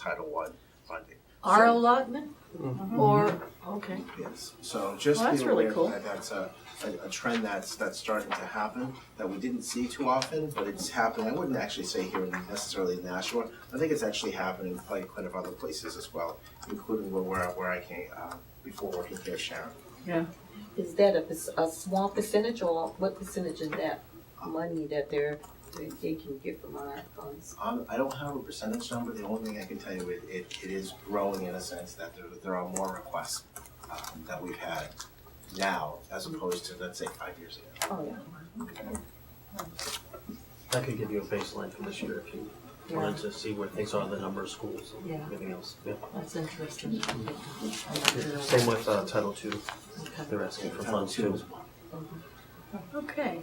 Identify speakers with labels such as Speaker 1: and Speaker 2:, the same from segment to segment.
Speaker 1: Title One funding.
Speaker 2: Our
Speaker 1: So-
Speaker 2: allotment? Or, okay.
Speaker 1: Yes, so just
Speaker 2: Well, that's
Speaker 1: be
Speaker 2: really
Speaker 1: aware
Speaker 2: cool.
Speaker 1: that that's a, a, a trend that's, that's starting to happen, that we didn't see too often, but it's happening. I wouldn't actually say here necessarily in Nashua. I think it's actually happening in quite, quite a other places as well, including where, where, I- where I came, uh, before working here, Sharon.
Speaker 3: Is that a, perc- a small percentage or what percentage is that money that they're, they they can get from our funds?
Speaker 1: Um, I don't have a percentage number, the only thing I can tell you, it, it, it is growing in a sense that there, there are more requests, um, that we've had now as opposed to, let's say, five years ago.
Speaker 3: Oh, yeah.
Speaker 4: I could give you a baseline for this year if you wanted to see where things are, the number of schools and
Speaker 2: Yeah.
Speaker 4: everything else. Yeah.
Speaker 2: That's interesting.
Speaker 4: Same with uh, Title II,
Speaker 2: Okay.
Speaker 4: they're asking for
Speaker 1: Title
Speaker 4: funds
Speaker 1: II
Speaker 4: too.
Speaker 1: as well.
Speaker 2: Okay.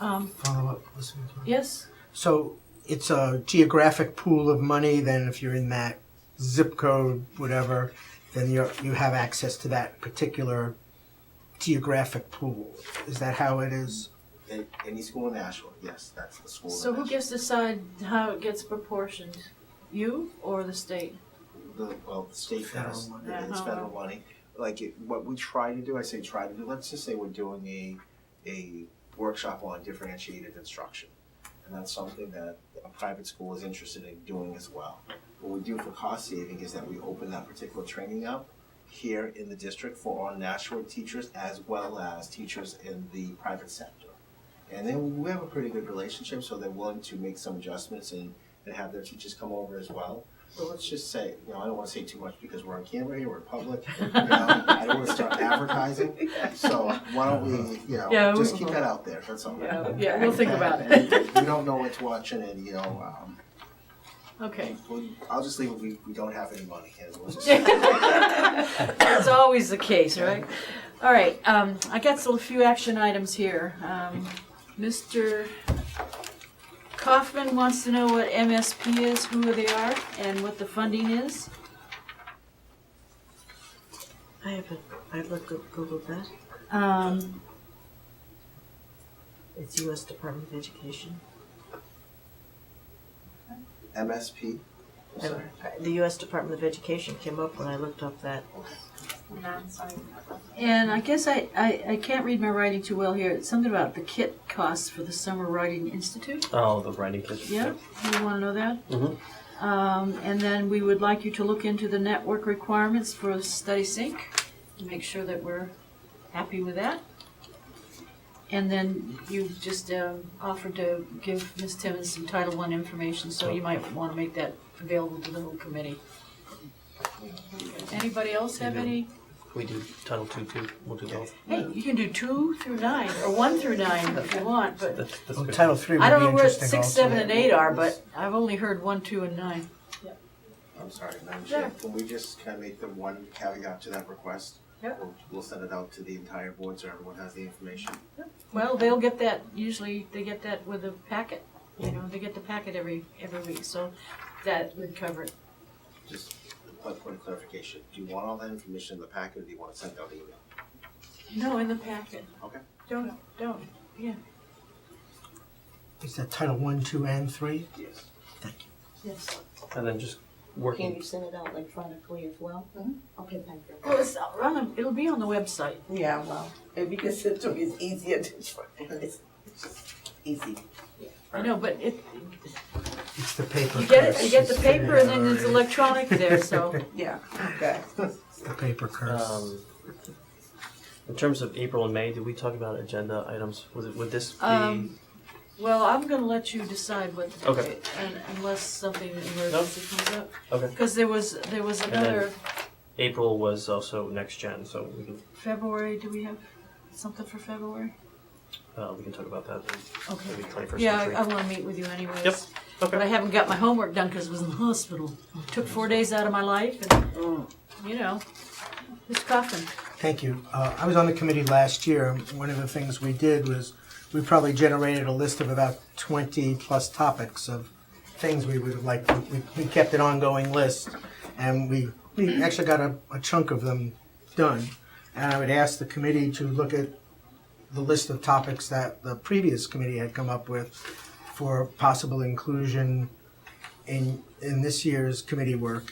Speaker 2: Um,
Speaker 5: follow up. Listen to
Speaker 2: yes,
Speaker 5: So it's a geographic pool of money. Then if you're in that zip code, whatever, then you you have access to that particular geographic pool. Is that how it is?
Speaker 1: Any- Any school in Nashua, yes, that's the school in
Speaker 2: so who
Speaker 1: Nashua.
Speaker 2: gets to decide how it gets proportioned? You or the state?
Speaker 1: the, well, the state
Speaker 5: Federal
Speaker 1: has,
Speaker 5: money.
Speaker 1: it's
Speaker 2: Uh-huh.
Speaker 1: federal money. Like, it- what we try to do, I say try to do, let's just say we're doing a, a workshop on differentiated instruction. And that's something that a private school is interested in doing as well. What we do for cost saving is that we open that particular training up here in the district for our Nashua teachers as well as teachers in the private sector. And then we have a pretty good relationship, so they're willing to make some adjustments and, and have their teachers come over as well. But let's just say, you know, I don't want to say too much because we're on camera here, we're public. You know, I don't want to start advertising. So why don't we, you know,
Speaker 2: Yeah, we-
Speaker 1: just keep that out there. That's all.
Speaker 2: yeah, we'll think about
Speaker 1: And
Speaker 2: it.
Speaker 1: we don't know what to watch, and, and you know, um,
Speaker 2: Okay.
Speaker 1: we- I'll just leave it. We, we don't have any money. And we'll just,
Speaker 2: That's always the case, right? All right, um, I got a few action items here. Um, Mr. Kaufman wants to know what MSP is, who they are, and what the funding is.
Speaker 6: I have a, I looked up Google that.
Speaker 2: Um,
Speaker 6: It's U.S. Department of Education.
Speaker 1: MSP. I'm
Speaker 6: And,
Speaker 1: Sorry.
Speaker 6: uh, The U.S. Department of Education came up when I looked up that.
Speaker 2: and I guess I, I, I can't read my writing too well here. It's something about the kit costs for the Summer Writing Institute.
Speaker 4: Oh, the writing kids.
Speaker 2: Yeah, you want to know that?
Speaker 4: Mhm.
Speaker 2: Um, and then we would like you to look into the network requirements for Study Sync, to make sure that we're happy with that. And then you just um, offered to give Ms. Timmons some Title I information, so you might want to make that available to the whole committee. Anybody else have any?
Speaker 4: We do Title II too, we'll do both.
Speaker 2: Hey, you can do two through nine, or one through nine if you want, but
Speaker 4: That's, that's
Speaker 5: Well,
Speaker 4: good.
Speaker 5: Title Three would
Speaker 2: I don't
Speaker 5: be
Speaker 2: know where
Speaker 5: interesting.
Speaker 2: six,
Speaker 5: also.
Speaker 2: seven, and eight are, but I've only heard one, two, and nine.
Speaker 1: I'm sorry, Madam
Speaker 2: Sure.
Speaker 1: Chair. Can we just kind of make the one caveat to that request?
Speaker 2: Yep.
Speaker 1: We'll, we'll send it out to the entire board so everyone has the information.
Speaker 2: Well, they'll get that, usually they get that with a packet, you know, they get the packet every, every week, so that would cover it.
Speaker 1: Just one point of clarification. Do you want all that information in the packet or do you want to send out an email?
Speaker 2: No, in the packet.
Speaker 1: Okay.
Speaker 2: Don't, don't.
Speaker 5: Is that Title One, Two, and Three?
Speaker 1: Yes.
Speaker 2: Yes.
Speaker 4: And then just
Speaker 3: Can
Speaker 4: working,
Speaker 3: you send it out electronically as well?
Speaker 2: Mm-hmm.
Speaker 3: Okay, thank you.
Speaker 2: Well, it's on, the- it'll be on the website.
Speaker 7: Yeah, well, if you can sit to me, it's easier to try. It's easy.
Speaker 2: I know, but it,
Speaker 5: It's the paper.
Speaker 2: you get it,
Speaker 5: curse.
Speaker 2: you get the
Speaker 5: It's uh,
Speaker 2: paper and then it's
Speaker 5: already-
Speaker 2: electronic there, so.
Speaker 7: Yeah, okay.
Speaker 5: it's The paper curse.
Speaker 4: um, in terms of April and May, did we talk about agenda items? Was it, would this be?
Speaker 2: Um, Well, I'm gonna let you decide what, to do,
Speaker 4: Okay.
Speaker 2: and unless something emergency comes up.
Speaker 4: Okay.
Speaker 2: Cause there was, there was
Speaker 4: then-
Speaker 2: another,
Speaker 4: April was also next gen, so we can,
Speaker 2: February, do we have something for February?
Speaker 4: uh, we can talk about that
Speaker 2: Okay.
Speaker 4: in maybe twenty-first
Speaker 2: Yeah,
Speaker 4: century.
Speaker 2: I, I wanna meet with you anyways.
Speaker 4: Yep. Okay.
Speaker 2: But I haven't got my homework done because I was in the hospital. Took four days out of my life and, you know, it's coughing.
Speaker 5: Thank you. Uh, I was on the committee last year. and One of the things we did was we probably generated a list of about 20 plus topics of things we would like. We, we kept an ongoing list and we, we actually got a, a chunk of them done. And I would ask the committee to look at the list of topics that the previous committee had come up with for possible inclusion in, in this year's committee work